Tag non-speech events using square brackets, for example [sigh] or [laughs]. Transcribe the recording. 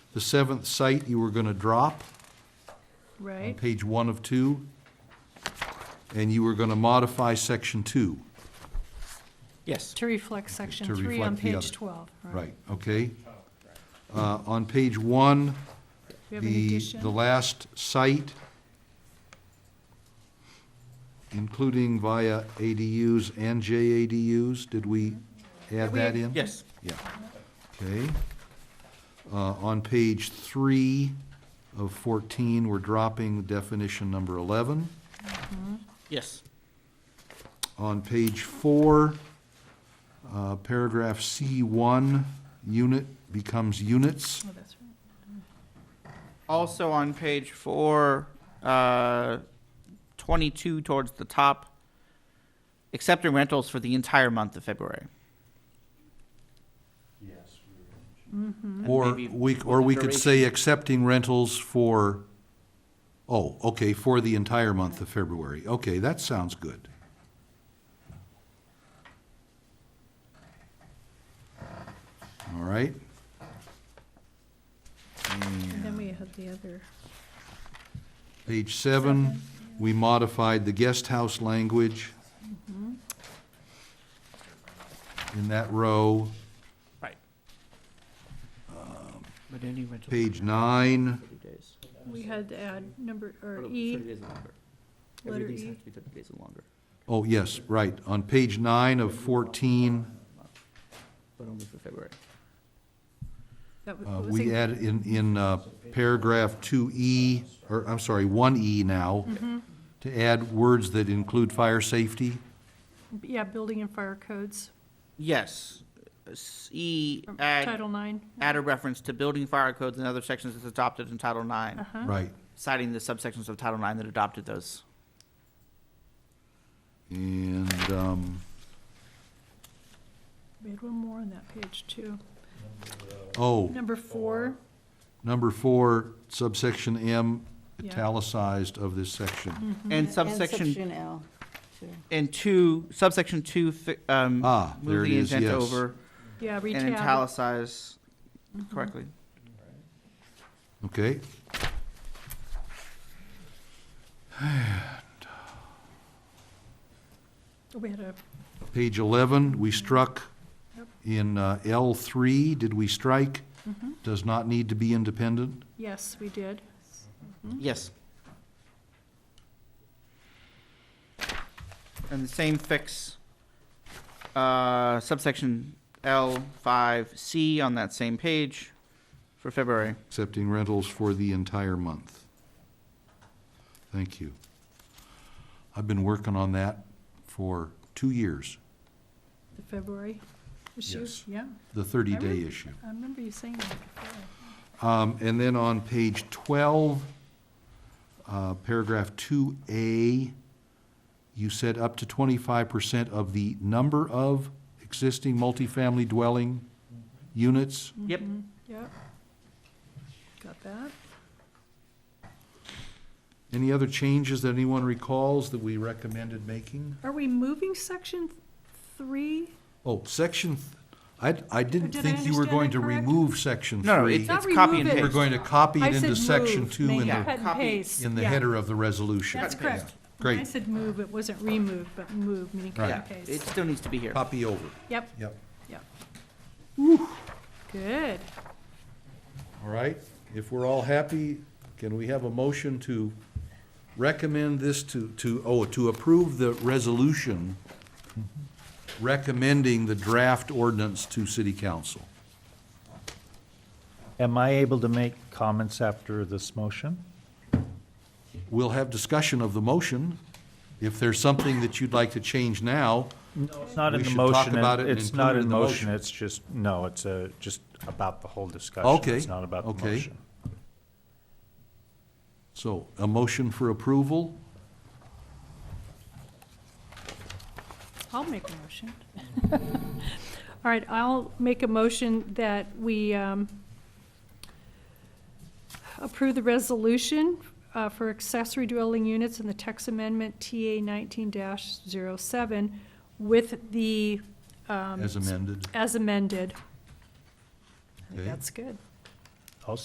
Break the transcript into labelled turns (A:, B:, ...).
A: The seventh site you were gonna drop on
B: right?
A: page one of two, and you were gonna modify section two.
C: Yes.
B: To reflect section
A: To
B: three
A: reflect
B: on
A: the
B: page
A: other.
B: twelve, right?
A: Right, okay? Uh, on page one,
B: We have an
A: the, the
B: addition,
A: last site, including via ADUs and JADUs, did we add
B: Mm-hmm. We-
A: that in?
C: Yes.
A: Yeah, okay. Uh, on page three of fourteen, we're dropping definition number eleven.
C: Yes.
A: On page four, uh, paragraph C one, unit becomes units.
B: Oh, that's right.
C: Also on page four, uh, 22 towards the top, accepting rentals for the entire month of February. And
A: Or
C: maybe
A: we, or we could say
C: duration.
A: accepting rentals for, oh, okay, for the entire month of February. Okay, that sounds good. All right.
B: And then we had the other,
A: Page seven, we modified the guest house language
C: Mm-hmm.
A: in that row.
C: Right. But any rental.
A: Page nine,
C: 30 days.
B: we had to add number, or
C: Or
B: E,
C: 30 days or longer.
B: letter
C: Every lease
B: E.
C: has to be 30 days or longer.
A: oh, yes, right. On page nine of fourteen,
C: But only for February.
B: that was,
A: uh,
B: was
A: we
B: it-
A: add in, in uh, paragraph two E, or I'm sorry, one E now,
B: Mm-hmm.
A: to add words that include fire safety.
B: yeah, building and fire codes,
C: Yes. S- E,
B: from
C: add,
B: Oh, Title Nine.
C: add a reference to building fire codes and other sections that's adopted in Title IX,
B: Uh-huh.
A: Right.
C: citing the subsections of Title IX that adopted those.
A: And, um,
B: We had one more on that page, too.
A: oh,
B: Number four,
A: number four, subsection M,
B: Yeah. Mm.
A: italicized of this section.
B: Mm-hmm.
C: And
D: And
C: subsection,
D: section L, too.
C: and two, subsection two, fi- um,
A: Ah, there
C: move
A: it
C: the
A: is,
C: intent
A: yes.
C: over
B: yeah,
C: and
B: retab,
C: italicize
B: Mm-hmm.
C: correctly.
A: Okay.
B: we had a,
A: Page 11, we struck in uh, L3, did we strike?
B: Mm-hmm.
A: Does not need to be independent?
B: yes, we did. Mm-hmm.
C: Yes. And the same fix, uh, subsection L five C on that same page for February.
A: Accepting rentals for the entire month. Thank you. I've been working on that for two years,
B: The February issue,
A: Yes.
B: yeah.
A: the
B: I really-
A: 30-day issue.
B: I remember you saying that before.
A: Um, And then on page 12, uh, paragraph 2A, you said up to 25% of the number of existing multifamily dwelling units.
B: Mm-hmm.
C: Yep.
B: Yep. Got that.
A: Any other changes that anyone recalls that we recommended making?
B: Are we moving section three?
A: Oh, section, th- I, I didn't
B: Did I
A: think you were
B: understand
A: going
B: it
A: to
B: correct?
A: remove section 3.
C: No, it's,
B: Not
C: it's copy and
B: remove it.
A: We're
C: paste.
A: going to copy
B: I
A: it into
B: said
A: section
B: move,
A: 2
B: make
A: in
B: it
C: Yeah.
A: the,
B: cut and
C: copy
B: paste,
A: in the
B: yeah.
A: header of the resolution.
B: That's
A: Yeah.
B: correct. When I
A: Great,
B: said move, it wasn't remove, but move, meaning cut
C: Yeah,
B: and
C: it
B: paste.
C: still needs to be here.
A: copy over,
B: Yep,
A: yep.
B: yep. Good.
A: All right, if we're all happy, can we have a motion to recommend this to, to, oh, to approve the resolution recommending the draft ordinance to city council?
E: Am I able to make comments after this motion?
A: We'll have discussion of the motion. If there's something that you'd like to change now,
E: It's not in
A: We
E: the
A: should talk
E: motion,
A: about
E: and
A: it and
E: it's
A: include
E: not
A: it
E: in
A: in
E: the
A: the
E: motion,
A: motion.
E: it's just, no, it's uh just about the whole discussion.
A: Okay,
E: It's not about the
A: okay.
E: motion.
A: so a motion for approval,
B: I'll make a motion. [laughs] All right, I'll make a motion that we um, approve the resolution uh, for accessory dwelling units in the text amendment TA nineteen 7 with the, um,
A: as amended.
B: as amended. I think
A: Okay.
B: That's good.